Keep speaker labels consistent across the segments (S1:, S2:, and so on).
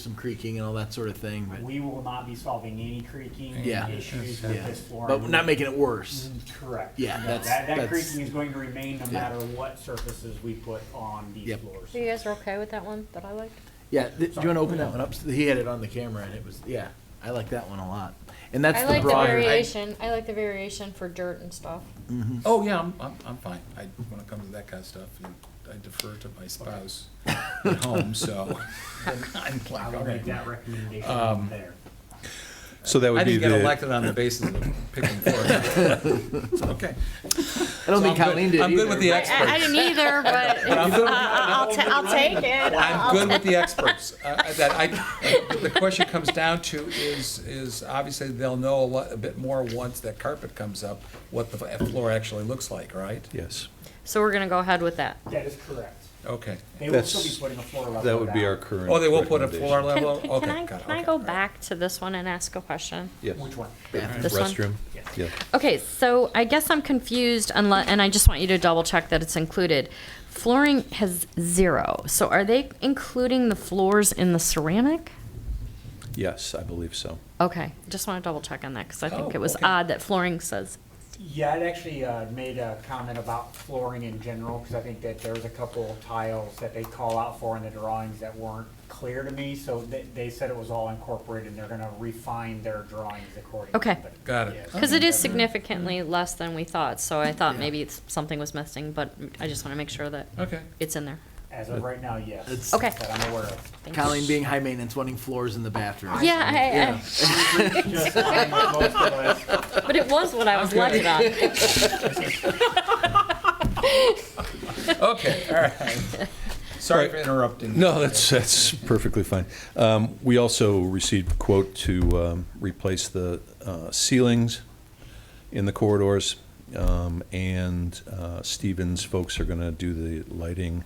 S1: some creaking and all that sort of thing, but,
S2: We will not be solving any creaking
S1: Yeah.
S2: issues with
S1: yeah.
S2: this flooring.
S1: But we're not making it worse.
S2: Mm-hmm. Correct.
S1: Yeah,
S2: No,
S1: that's-
S2: That, that
S1: that's-
S2: creaking is going to remain no
S1: Yeah.
S2: matter what surfaces we put on these
S1: Yep.
S2: floors.
S3: So you guys are okay with that one that I liked?
S1: Yeah, th- do you want to open that one up? He had it on the camera and it was, yeah, I like that one a lot. And that's
S3: I
S1: the
S3: like the
S1: broader.
S3: variation, I like the variation for dirt and stuff.
S4: Oh, yeah, I'm, I'm, I'm fine. I, when it comes to that kind of stuff, I defer to my spouse at home, so. I'm like,
S2: I
S4: all
S2: will
S4: right.
S2: make that recommendation
S4: Um,
S2: there.
S5: So that
S4: I
S5: would be
S4: didn't get
S5: the,
S4: elected on the basis of picking for it. It's okay.
S1: I don't think
S4: So I'm good-
S1: Colleen did
S4: I'm good with
S1: either,
S4: the
S1: but-
S4: ex- Experts.
S3: didn't either, but uh,
S4: I'm good with-
S3: I'll, ta- I'll take it.
S4: I'm good with the experts. Uh, That I, the question comes down to is, is obviously they'll know a lot, a bit more once that carpet comes up, what the floor actually looks like, right?
S5: yes,
S3: So we're gonna go ahead with that.
S2: That is correct.
S4: Okay.
S2: They will still be
S5: That's-
S2: putting a floor level.
S5: that would be our
S2: down.
S5: current.
S4: Oh, they will put a
S5: recommendation.
S4: floor
S3: Can,
S4: level?
S3: can-
S4: Okay,
S3: can I,
S4: got it,
S3: can I
S4: okay,
S3: go
S4: all right.
S3: back to this one and ask a question?
S5: Yes,
S2: Which one?
S3: This one?
S5: restroom,
S2: Yes.
S5: yeah.
S3: Okay, so I guess I'm confused unless, and I just want you to double check that it's included. Flooring has zero, so are they including the floors in the ceramic?
S5: Yes, I believe so.
S3: Okay, just want to double check on that because I think
S4: Oh,
S3: it was
S4: okay.
S3: odd that flooring says.
S2: Yeah, I'd actually uh, made a comment about flooring in general, because I think that there's a couple tiles that they call out for in the drawings that weren't clear to me, so they, they said it was all incorporated, and they're gonna refine their drawings accordingly.
S3: Okay.
S2: but-
S4: Got it.
S2: Yes.
S3: Because it is significantly less than we thought, so I thought maybe it's- something was missing, but I just want to make sure that
S4: Okay.
S3: it's in there.
S2: As of right now, yes.
S1: It's-
S3: Okay.
S2: That I'm aware of.
S3: Thank you.
S1: Colleen being high maintenance, wanting floors in the bathroom.
S3: Yeah, I-
S2: Just like most of us.
S3: I, but it was what I was
S4: Okay.
S3: looking on.
S4: Okay, all right. Sorry for interrupting.
S5: No, that's, that's perfectly fine. Um, We also received quote to um, replace the uh, ceilings in the corridors, um, and uh, Stevens folks are going to do the lighting,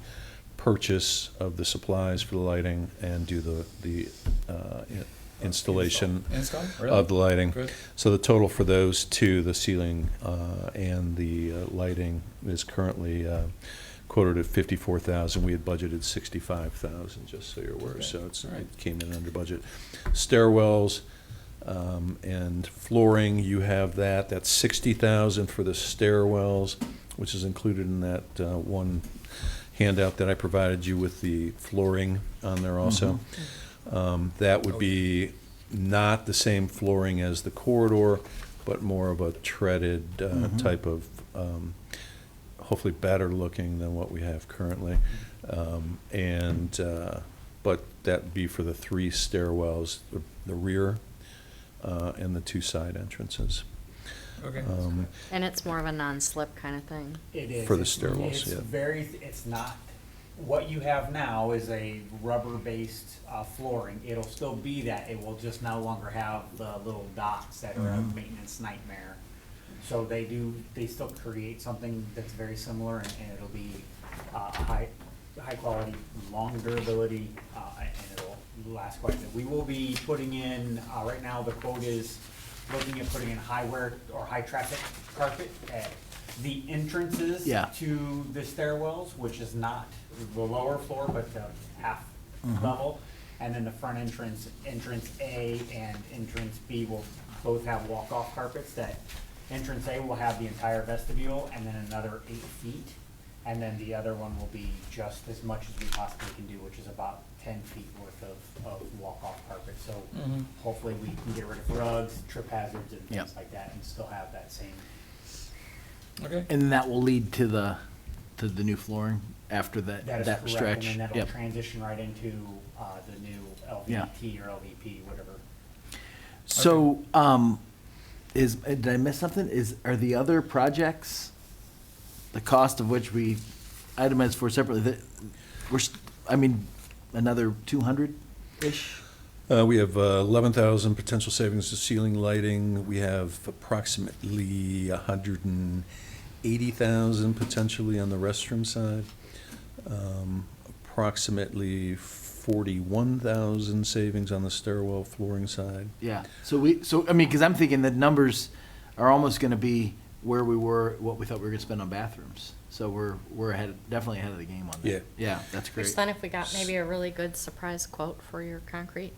S5: purchase of the supplies for the lighting, and do the, the uh, in- installation
S4: Install? Really?
S5: of the lighting.
S4: Good.
S5: So the total for those two, the ceiling uh, and the uh, lighting, is currently uh, quoted at fifty-four thousand. We had budgeted sixty-five thousand, just so you're aware,
S4: Okay.
S5: so it's,
S4: All right.
S5: it came in under budget. Stairwells um, and flooring, you have that, that's sixty thousand for the stairwells, which is included in that uh, one handout that I provided you with the flooring on there also.
S4: Mm-hmm.
S5: Um, That would be not the same flooring as the corridor, but more of a treaded uh, type of, um, hopefully better looking than what we have currently. Um, And, uh, but that'd be for the three stairwells, the- the rear uh, and the two side entrances.
S4: Okay.
S5: Um,
S3: And it's more of a non-slip kind of thing.
S2: It is.
S5: For the
S2: It's-
S5: stairwells,
S2: It's
S5: yeah.
S2: very, it's not, what you have now is a rubber-based uh, flooring. It'll still be that, it will just no longer have the little dots that are a maintenance nightmare. So they do, they still create something that's very similar, and and it'll be uh, high, high quality, long durability, uh, and it'll last quite a bit. We will be putting in, uh, right now, the quote is looking at putting in high wear or high traffic carpet at the entrances
S1: Yeah.
S2: to the stairwells, which is not the lower floor, but the half level. And then the front entrance, entrance A and entrance B will both have walk-off carpets that entrance A will have the entire vestibule and then another eight feet. And then the other one will be just as much as we possibly can do, which is about ten feet worth of, of walk-off carpet. So hopefully we can get rid of rugs, trip hazards and things
S1: Yep.
S2: like that and still have that same
S4: Okay.
S1: And that will lead to the, to the new flooring after that,
S2: That is
S1: that
S2: correct,
S1: stretch.
S2: and then that'll
S1: Yep.
S2: transition right into uh, the new
S1: Yeah.
S2: LVT or LVP, whatever.
S1: So, um, is, uh, did I miss something? Is, are the other projects, the cost of which we itemized for separately, that, we're, st- I mean, another two hundred-ish?
S5: Uh, We have uh, 11,000 potential savings to ceiling lighting. We have approximately 180,000 potentially on the restroom side. Um, Approximately 41,000 savings on the stairwell flooring side.
S1: Yeah, so we, so, I mean, because I'm thinking the numbers are almost gonna be where we were, what we thought we were gonna spend on bathrooms. So we're, we're ahead, definitely ahead of the game on that.
S5: Yeah.
S1: Yeah, that's great.
S3: Which then if we got maybe a really good surprise quote for your concrete,